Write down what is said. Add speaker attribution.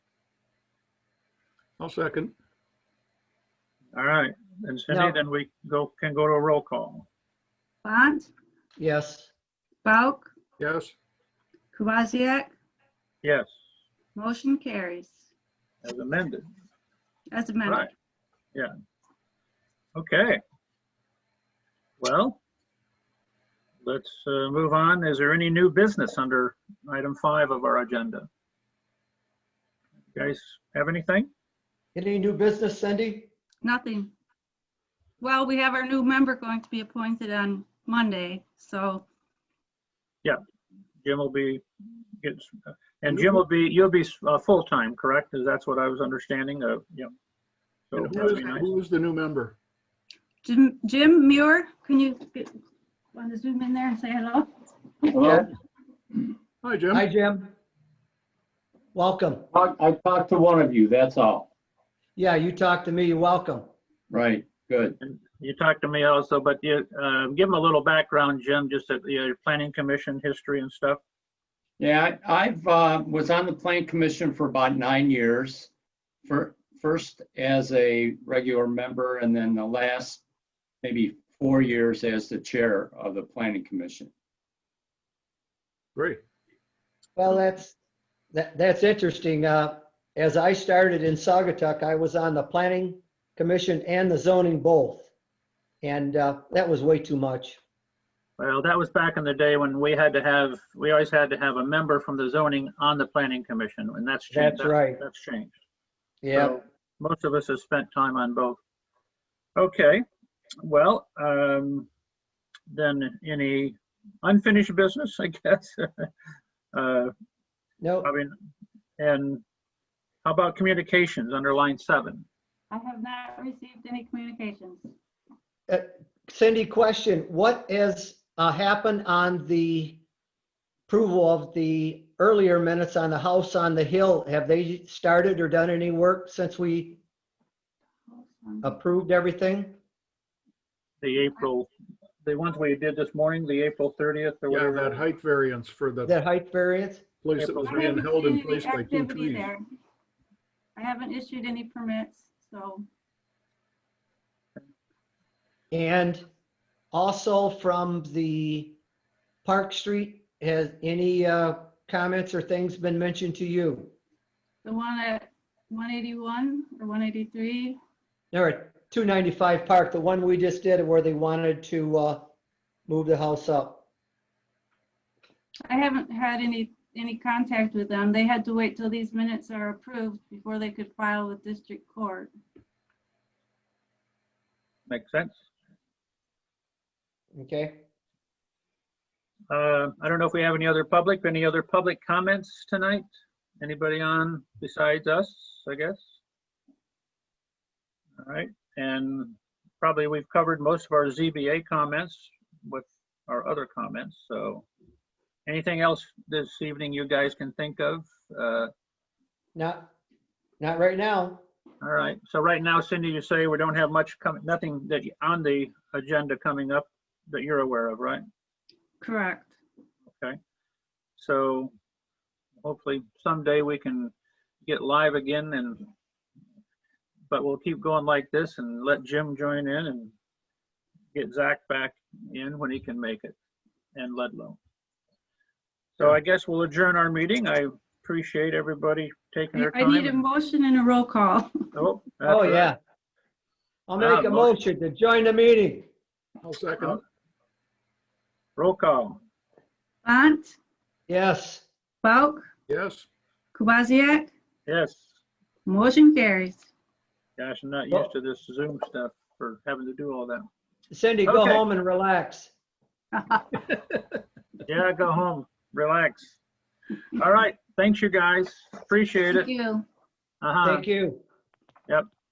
Speaker 1: I'll second.
Speaker 2: All right, and Cindy,
Speaker 3: No.
Speaker 2: then we go, can go to a roll call.
Speaker 4: Bont,
Speaker 3: Yes.
Speaker 4: Bauk,
Speaker 1: Yes,
Speaker 4: Kowaziak,
Speaker 2: Yes,
Speaker 4: motion carries
Speaker 2: as amended. Right.
Speaker 4: as amended.
Speaker 2: Yeah. Okay. Well, let's uh, move on. Is there any new business under item five of our agenda? You guys have anything?
Speaker 3: Any new business, Cindy?
Speaker 4: Nothing. Well, we have our new member going to be appointed on Monday, so
Speaker 2: Jim will be, gets, and Jim will be, you'll be uh, full-time, correct? Is that's what I was understanding of, yeah. So
Speaker 1: And who
Speaker 2: that'd
Speaker 1: is,
Speaker 2: be nice.
Speaker 1: who is the new member?
Speaker 4: Jim, Jim Muir, can you get, want to zoom in there and say hello?
Speaker 5: Well,
Speaker 1: Hi, Jim.
Speaker 3: Hi, Jim. Welcome.
Speaker 5: talk- I talked to one of you, that's all.
Speaker 3: Yeah, you talked to me. You're welcome.
Speaker 5: Right, good.
Speaker 2: You talked to me also, but you, uh, give him a little background, Jim, just at the uh, planning commission history and stuff.
Speaker 5: Yeah, I- I've, uh, was on the plan commission for about nine years. For, first as a regular member and then the last maybe four years as the chair of the planning commission.
Speaker 1: Great.
Speaker 3: Well, that's, that, that's interesting. Uh, as I started in Saugatuck, I was on the planning commission and the zoning both. And, uh, that was way too much.
Speaker 2: Well, that was back in the day when we had to have, we always had to have a member from the zoning on the planning commission, and that's changed.
Speaker 3: That's right.
Speaker 2: That's changed.
Speaker 3: Yeah.
Speaker 2: So Most of us have spent time on both. Okay, well, um, then any unfinished business, I guess? Uh,
Speaker 3: No,
Speaker 2: I mean, and how about communications under line seven?
Speaker 4: I have not received any communications.
Speaker 3: Cindy, question, what has, uh, happened on the approval of the earlier minutes on the house on the hill? Have they started or done any work since we approved everything?
Speaker 2: The April, the ones we did this morning, the April 30th
Speaker 1: Yeah,
Speaker 2: or whatever.
Speaker 1: that height variance for the
Speaker 3: That height variance?
Speaker 1: place that was
Speaker 4: I
Speaker 1: being
Speaker 4: haven't
Speaker 1: held
Speaker 4: seen
Speaker 1: in
Speaker 4: any
Speaker 1: place by two
Speaker 4: activity
Speaker 1: trees.
Speaker 4: there. I haven't issued any permits, so
Speaker 3: And also from the Park Street, has any uh, comments or things been mentioned to you?
Speaker 4: the one at 181 or 183,
Speaker 3: There are 295 Park, the one we just did where they wanted to uh, move the house up.
Speaker 4: I haven't had any, any contact with them. They had to wait till these minutes are approved before they could file with district court.
Speaker 2: Makes sense.
Speaker 3: Okay,
Speaker 2: Uh, I don't know if we have any other public, any other public comments tonight? Anybody on besides us, I guess? All right, and probably we've covered most of our ZBA comments with our other comments, so. Anything else this evening you guys can think of? Uh,
Speaker 3: not, not right now.
Speaker 2: All right, so right now, Cindy, you say we don't have much coming, nothing that you- on the agenda coming up that you're aware of, right?
Speaker 4: Correct.
Speaker 2: So hopefully someday we can get live again and, but we'll keep going like this and let Jim join in and get Zach back in when he can make it and Ludlow. So I guess we'll adjourn our meeting. I appreciate everybody taking
Speaker 4: I
Speaker 2: their
Speaker 4: I
Speaker 2: time.
Speaker 4: need a motion and a roll call.
Speaker 2: Oh, that's
Speaker 3: Oh,
Speaker 2: right.
Speaker 3: yeah. I'll make
Speaker 2: Ah,
Speaker 3: a
Speaker 2: motion.
Speaker 3: motion to join the meeting.
Speaker 1: I'll second.
Speaker 2: Roll call.
Speaker 4: Bont,
Speaker 3: Yes.
Speaker 4: Bauk,
Speaker 1: Yes.
Speaker 4: Kowaziak,
Speaker 2: Yes.
Speaker 4: motion carries.
Speaker 2: Gosh, I'm not
Speaker 3: Well-
Speaker 2: used to this Zoom stuff for having to do all that.
Speaker 3: Cindy, go
Speaker 2: Okay.
Speaker 3: home and relax.
Speaker 2: Yeah, go home, relax. All right, thanks you guys, appreciate
Speaker 4: Thank
Speaker 2: it.
Speaker 4: you.
Speaker 2: Uh huh.
Speaker 3: Thank you.